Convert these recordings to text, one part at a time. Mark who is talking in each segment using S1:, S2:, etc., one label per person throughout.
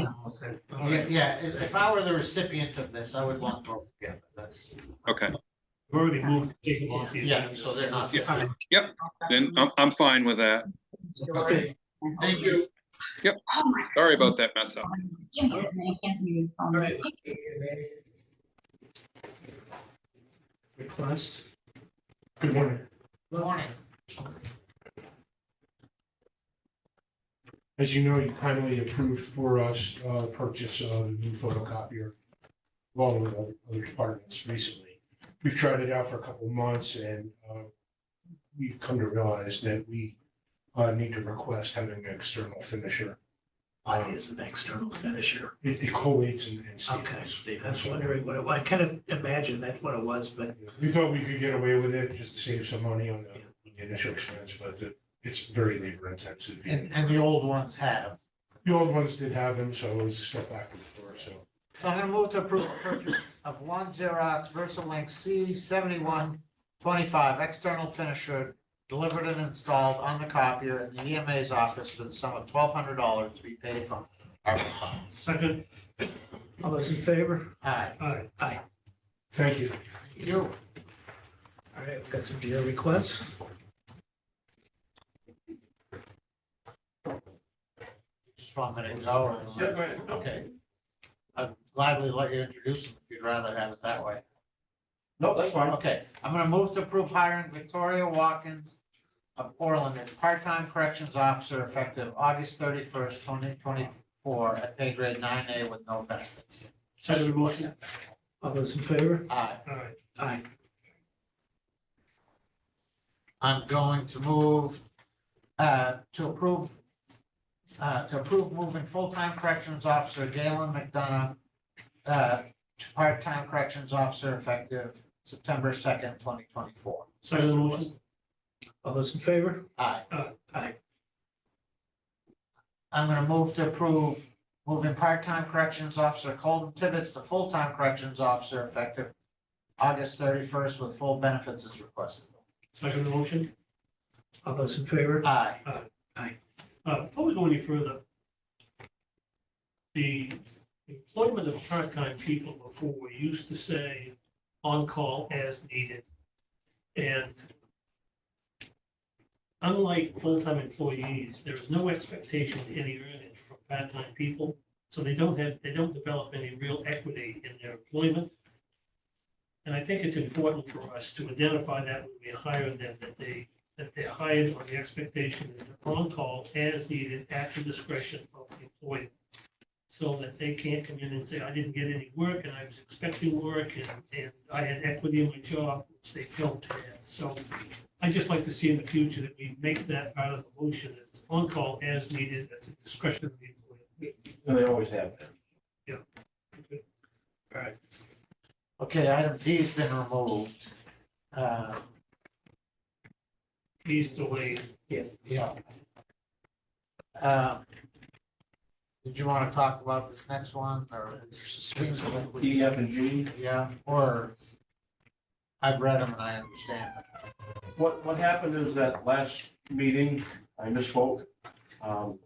S1: Yeah, yeah, as- if I were the recipient of this, I would want both together, that's,
S2: Okay,
S3: We've already moved, taken off the
S1: yeah,
S3: agenda,
S1: so they're not.
S2: Yeah. then I'm, I'm fine with that.
S1: Okay, Thank you.
S2: Sorry about that mess up.
S3: Request. Good morning.
S1: Good Morning.
S3: As you know, you kindly approved for us uh purchase of a new photocopier along with other- other departments recently. We've tried it out for a couple of months and uh we've come to realize that we uh need to request having an external finisher. Uh,
S4: What is an external finisher?
S3: It it collates and and
S4: Okay,
S3: seals.
S4: I was wondering what, it was. I kind of imagined that's what it was, but
S3: We thought we could get away with it just to save some money on the on the initial expense, but it- it's very labor intensive.
S1: And, and the old ones had them.
S3: The old ones did have them, so it was a step backwards for us, so.
S1: So I'm gonna move to approve the purchase of one Xerox VersaLink C seventy-one twenty-five external finisher delivered and installed on the copier in the EMA's office for the sum of twelve hundred dollars to be paid from ARPA funds.
S3: Second.
S4: all those in favor?
S1: Aye.
S3: Aye.
S4: Aye.
S3: Thank you.
S1: You.
S4: All right, we've got some GL requests.
S1: Just one minute. go. Okay. I'd gladly let you introduce them if you'd rather have it that way.
S5: No, that's fine.
S1: Okay, I'm gonna move to approve hiring Victoria Watkins of Portland as part-time corrections officer effective August thirty-first, twenty twenty-four at pay grade nine A with no benefits.
S4: Second motion. All those in favor?
S1: Aye.
S4: Aye.
S1: I'm going to move uh, to approve uh, to approve moving full-time corrections officer Galen McDonough uh, to part-time corrections officer effective September second, twenty twenty-four.
S4: Second motion. All those in favor?
S1: Aye.
S4: Aye.
S1: I'm gonna move to approve moving part-time corrections officer Colton Tibbetts to full-time corrections officer effective August thirty-first with full benefits as requested.
S5: Second motion.
S4: All those in favor?
S1: Aye.
S5: Uh, Before we go any further, the employment of part-time people before, we used to say on-call as needed. And unlike full-time employees, there is no expectation of any earnings from part-time people. So they don't have, they don't develop any real equity in their employment. And I think it's important for us to identify that when we hire them, that they that they're hired on the expectation that they're on call as needed at the discretion of the employer. So that they can't come in and say, I didn't get any work and I was expecting work and, and I had equity in my job, which they don't have. So I'd just like to see in the future that we make that part of the motion, that it's on call as needed at the discretion of the employer.
S6: And they always have.
S1: Okay, item D's been removed. Uh,
S5: Please delay.
S1: Yeah. Um, Did you want to talk about this next one or?
S6: E, F, and G,
S1: Yeah, or I've read them and I understand.
S6: what, what happened is that last meeting, I misspoke. Um,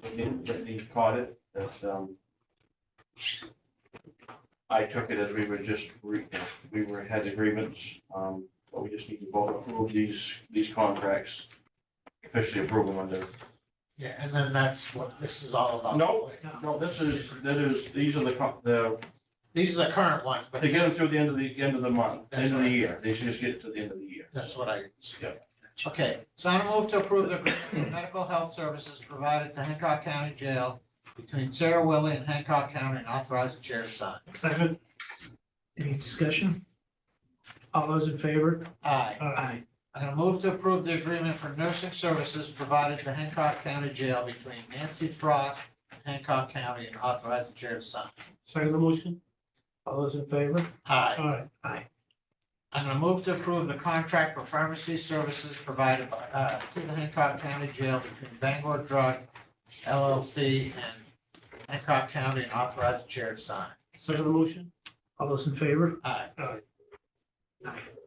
S6: Brittany caught it, that, um, I took it as we were just, re- we were, had agreements, um, but we just need to vote approve these, these contracts. Officially approve them under,
S1: Yeah, and then that's what this is all about.
S6: No. no, this is, that is, these are the, co- the,
S1: These are the current ones, but
S6: to get them
S1: this-
S6: through the end of the, end of the month, end of the year, they should just get to the end of the year.
S1: that's what I.
S6: Yeah.
S1: Okay, so I move to approve the agreement for medical health services provided to Hancock County Jail between Sarah Willie and Hancock County and authorize the chair to sign.
S5: Second.
S4: Any discussion? All those in favor?
S1: Aye.
S4: Aye.
S1: I'm gonna move to approve the agreement for nursing services provided to Hancock County Jail between Nancy Frost and Hancock County and authorize the chair to sign.
S5: Second motion.
S4: All those in favor?
S1: Aye.
S5: Aye.
S1: I'm gonna move to approve the contract for pharmacy services provided by, uh, to the Hancock County Jail between Bangor Drug LLC and Hancock County and authorize the chair to sign.
S5: Second motion.
S4: All those in favor?
S1: Aye.
S5: Aye.
S4: Aye.